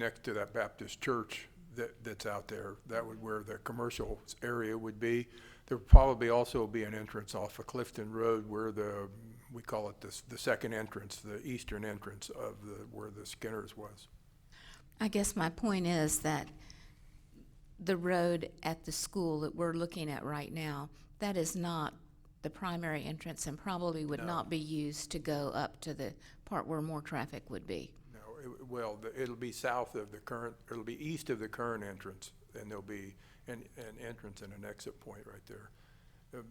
next to that Baptist church that, that's out there. That would where the commercial area would be. There'd probably also be an entrance off of Clifton Road where the, we call it the, s- the second entrance, the eastern entrance of the, where the Skinner's was. I guess my point is that the road at the school that we're looking at right now, that is not the primary entrance and probably would not be used to go up to the part where more traffic would be. No, it, well, the- it'll be south of the current, it'll be east of the current entrance, and there'll be an, an entrance and an exit point right there. Um,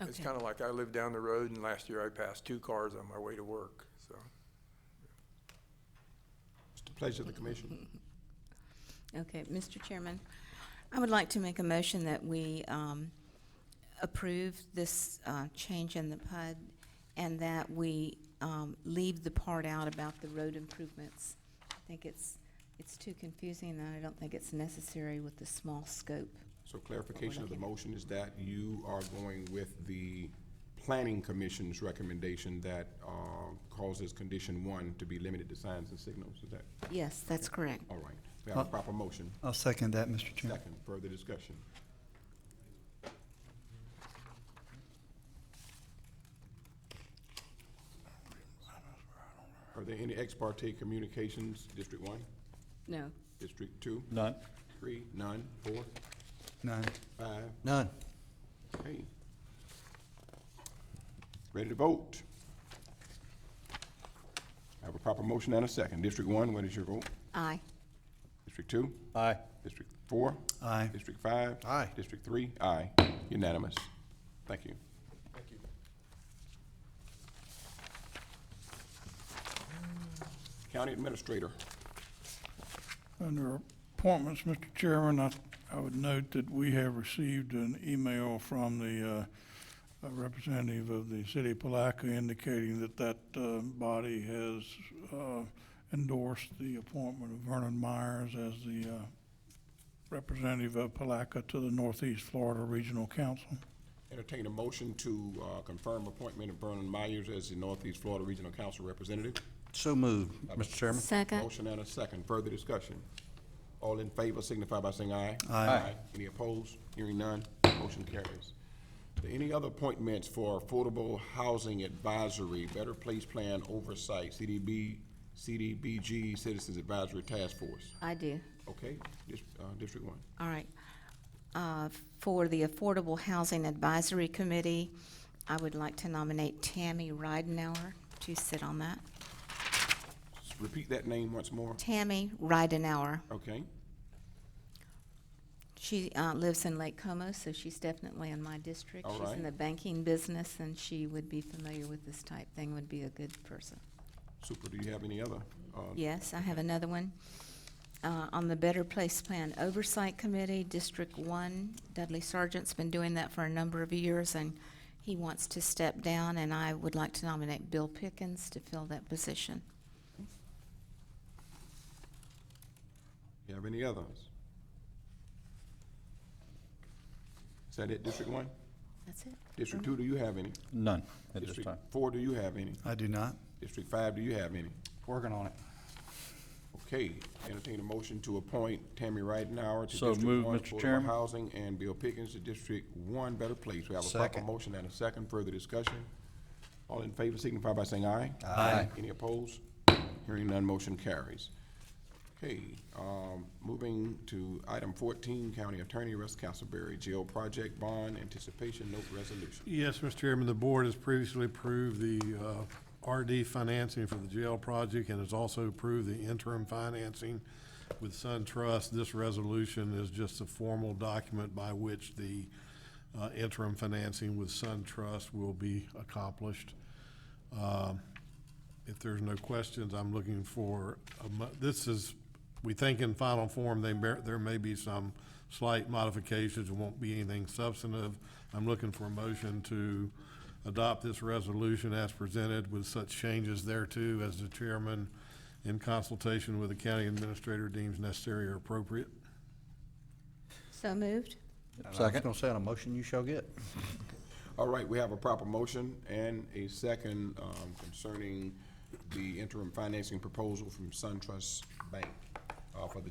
It's Okay. kinda like I live down the road, and last year I passed two cars on my way to work, so. It's the pleasure of the commission. Okay, Mr. Chairman, I would like to make a motion that we um, approve this uh, change in the PUD and that we um, leave the part out about the road improvements. I think it's, it's too confusing and I don't think it's necessary with the small scope. So clarification of the motion is that you are going with the planning commission's recommendation that uh, causes condition one to be limited to signs and signals, is that, Yes, that's correct. all right. We have a proper motion. I'll second that, Mr. Chairman. Second, further discussion. Are there any ex parte communications, District One, No. District Two, None. Three, none, four, None. five? None. Okay. Ready to vote? I have a proper motion and a second. District One, what is your vote? Aye. District Two? Aye. District Four? Aye. District Five? Aye. District Three? Aye. Unanimous. Thank you. County Administrator, Under appointments, Mr. Chairman, I, I would note that we have received an email from the, uh, uh, representative of the city of Palaca indicating that that, uh, body has, uh, endorsed the appointment of Vernon Myers as the, uh, representative of Palaca to the Northeast Florida Regional Council. entertain a motion to uh, confirm appointment of Vernon Myers as the Northeast Florida Regional Council Representative. So moved, Mr. Chairman. Second. Motion and a second. Further discussion. All in favor signify by saying aye. Aye. Any opposed? Hearing none, motion carries. Are there Any other appointments for Affordable Housing Advisory, Better Place Plan Oversight, CDB, CDBG Citizens Advisory Task Force? I do. Okay, dis- uh, District One. All right. Uh, For the Affordable Housing Advisory Committee, I would like to nominate Tammy Ridenhour to sit on that. S- Repeat that name once more. Tammy Ridenhour. Okay, She uh, lives in Lake Como, so she's definitely in my district. All She's in right. the banking business, and she would be familiar with this type thing, would be a good person. super. Do you have any other? uh, Yes, I have another one. Uh, On the Better Place Plan Oversight Committee, District One, Dudley Sargent's been doing that for a number of years, and he wants to step down, and I would like to nominate Bill Pickens to fill that position. You have any others? Is that it, District One? That's it. District Two, do you have any? None at this District time. four, do you have any? I do not. District five, do you have any? Working on it. Okay, entertain a motion to appoint Tammy Ridenhour to So District moved, One Mr. Affordable Chairman. Housing and Bill Pickens to District One Better Place. We have a proper Second. motion and a second. Further discussion? All in favor signify by saying aye. Aye. Any opposed? Hearing none, motion carries. Okay, um, moving to item fourteen, County Attorney Russ Castleberry, Jail Project Bond Anticipation Note Resolution. Yes, Mr. Chairman, the board has previously approved the uh, RD financing for the jail project and has also approved the interim financing with SunTrust. This resolution is just a formal document by which the uh, interim financing with SunTrust will be accomplished. Um, If there's no questions, I'm looking for, a mo- this is, we think in final form, they, bear- there may be some slight modifications, it won't be anything substantive. I'm looking for a motion to adopt this resolution as presented with such changes thereto as the chairman in consultation with the county administrator deems necessary or appropriate. So moved? I was gonna say, on a motion you shall get. All right, we have a proper motion and a second um, concerning the interim financing proposal from SunTrust Bank. uh, for the